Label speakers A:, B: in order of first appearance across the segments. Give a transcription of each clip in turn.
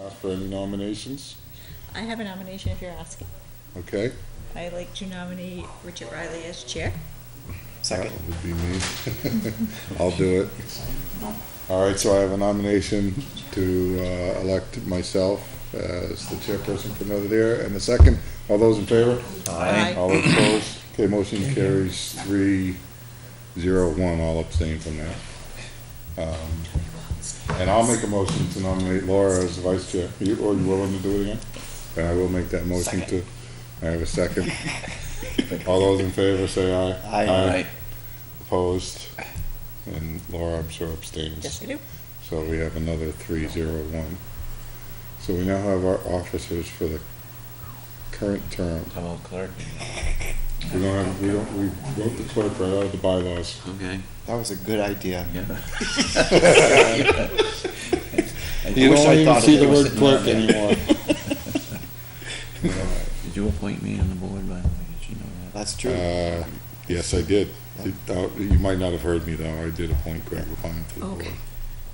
A: Ask for any nominations?
B: I have a nomination if you're asking.
A: Okay.
B: I'd like to nominate Richard Riley as chair.
A: Second. Would be me. I'll do it. All right, so I have a nomination to uh, elect myself as the chairperson for another year. And the second, all those in favor?
B: Aye.
A: All opposed? Okay, motion carries three, zero, one, all abstain from that. Um, And I'll make a motion to nominate Laura as the vice chair. You, or you willing to do it again? And I will make that motion to, I have a second. All those in favor, say aye.
C: uh,
A: Opposed? And Laura, I'm sure abstains.
B: Yes, I do.
A: So we have another three zero one. So we now have our officers for the current term.
D: Hello, clerk.
A: We don't have, we don't, we wrote the clerk right out of the bylaws.
D: Okay,
C: That was a good idea.
D: yeah.
A: You
C: wish
A: don't
C: I
A: even
C: thought
A: see
C: of
A: the
C: it.
A: word clerk anymore.
D: Did you appoint me on the board, by the way? Did you know that?
C: That's true.
A: Uh, Yes, I did. It- uh, You might not have heard me though, I did appoint Greg Lapine to the board
B: Okay.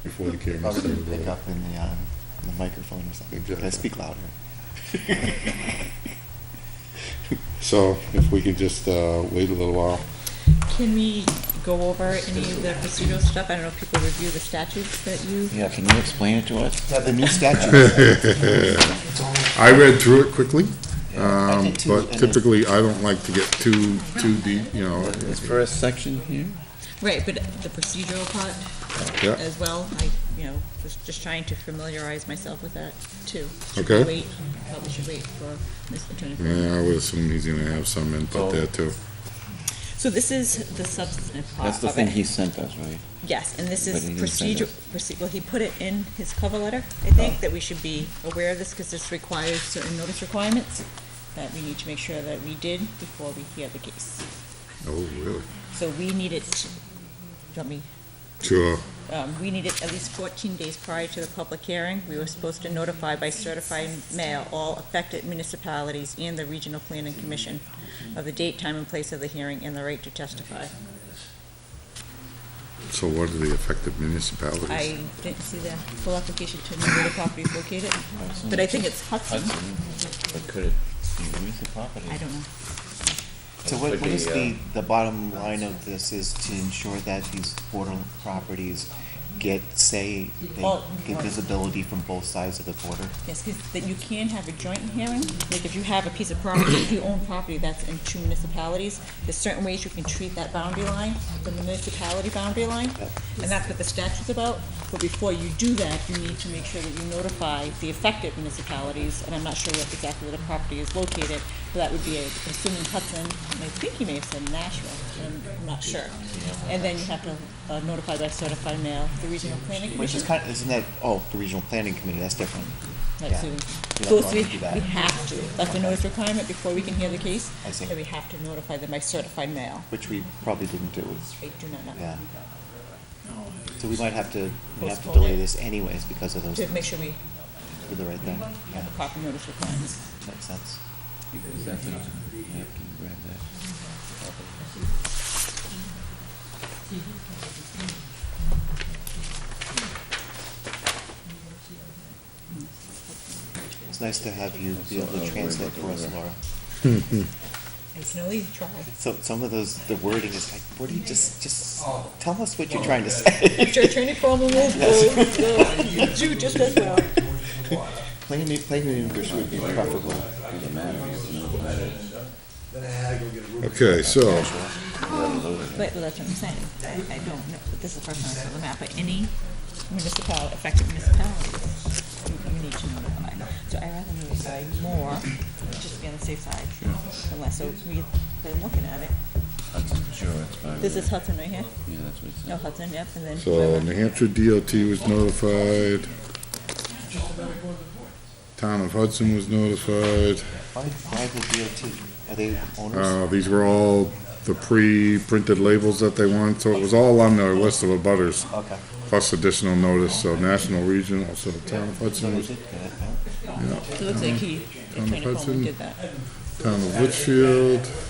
A: before he came.
C: Probably didn't pick
A: to
C: up in the, uh, in the microphone or something.
A: Exactly.
C: Okay, speak louder.
A: So if we could just uh, wait a little while.
B: Can we go over any of the procedural stuff? I don't know if people review the statutes that you.
D: Yeah, can you explain it to us?
C: Yeah, the new statute.
A: I read through it quickly,
C: I
A: um,
C: did too,
A: but
C: and it-
A: typically I don't like to get too, too deep, you know.
D: This first section here?
B: Right, but the procedural part
A: Yeah,
B: as well, I, you know, was just trying to familiarize myself with that too. Should we
A: Okay.
B: Wait, probably should wait for Ms. Attorney. Freeman.
A: yeah, I would assume he's gonna have some
C: Oh.
A: input there too.
B: So this is the substantive part
D: That's the
B: of
D: thing
B: it.
D: he sent us, right?
B: Yes, and this
D: But
B: is
D: he didn't say
B: procedural, well, he put it in his cover letter, I think, that we should be aware of this, because this requires certain notice requirements that we need to make sure that we did before we hear the case.
A: Oh, really?
B: So we need it, do me,
A: Sure.
B: um, we need it at least fourteen days prior to the public hearing. We were supposed to notify by certified mail all affected municipalities and the Regional Planning Commission of the date, time, and place of the hearing and the right to testify.
A: So what are the affected municipalities?
B: I didn't see the full application to know where the property is located, but I think it's Hudson.
D: Hudson, but could it, where's the property?
B: I don't know.
C: So what,
D: Could
C: what
D: be,
C: is
D: uh,
C: the, the bottom line of this is to ensure that these border properties get, say, they
B: Well-
C: get visibility from both sides of the border.
B: Yes, 'cause that you can have a joint hearing, like if you have a piece of property, if you own property that's in two municipalities, there's certain ways you can treat that boundary line, the municipality boundary line, and that's what the statute's about. But before you do that, you need to make sure that you notify the affected municipalities, and I'm not sure what exactly where the property is located, but that would be, I'm assuming Hudson, and I think you may have said Nashville, I'm not sure. And then you have to uh, notify by certified mail, the regional planning commission.
C: Which is kind of, isn't that, oh, the regional planning committee, that's different.
B: Right,
C: Yeah.
B: so,
C: You don't
B: so
C: want
B: we,
C: to do that.
B: we have to, that's a notice requirement before we can hear the case.
C: I see.
B: And we have to notify them by certified mail.
C: Which we probably didn't do. It's-
B: I do not know,
C: Yeah. So we might have to, we have to
B: Postpone
C: delay
B: it.
C: this anyways because of those,
B: to make
C: things.
B: sure we
C: do the right thing. Yeah,
B: have the proper notice requirements.
C: makes sense.
D: Is that the, yeah, can you grab that?
C: It's nice to have you be able to translate for us, Laura.
B: I can only try.
C: So some of those, the wording is like, what do you just, just tell us what you're trying to say.
B: If your attorney problem will, will, will do just as well.
C: Plain, plain English would be preferable.
D: Doesn't matter, you can notify it.
A: Okay, so,
B: But well, that's what I'm saying, I, I don't know, but this is the first time I saw the map, but any municipality, affected municipality, you- you need to notify. So I rather notify more, just to be on the safe side, unless, so we've been looking at it.
D: Hudson, sure, it's probably.
B: This is Hudson right here?
D: Yeah, that's what it
B: No,
D: said.
B: Hudson, yep, and then
A: so
B: whoever.
A: New Hampshire DOT was notified. Town of Hudson was notified.
C: Why, why the DOT? Are they owners?
A: Uh, these were all the pre-printed labels that they wanted, so it was all on their list of abutters,
C: Okay.
A: plus additional notice, so national, regional, so town of
C: So
A: Hudson
C: they
A: was,
C: did get it, huh?
A: yeah.
B: It looks like he,
A: Town of
B: Attorney Coleman
A: Hudson.
B: did that.
A: Town of Litchfield,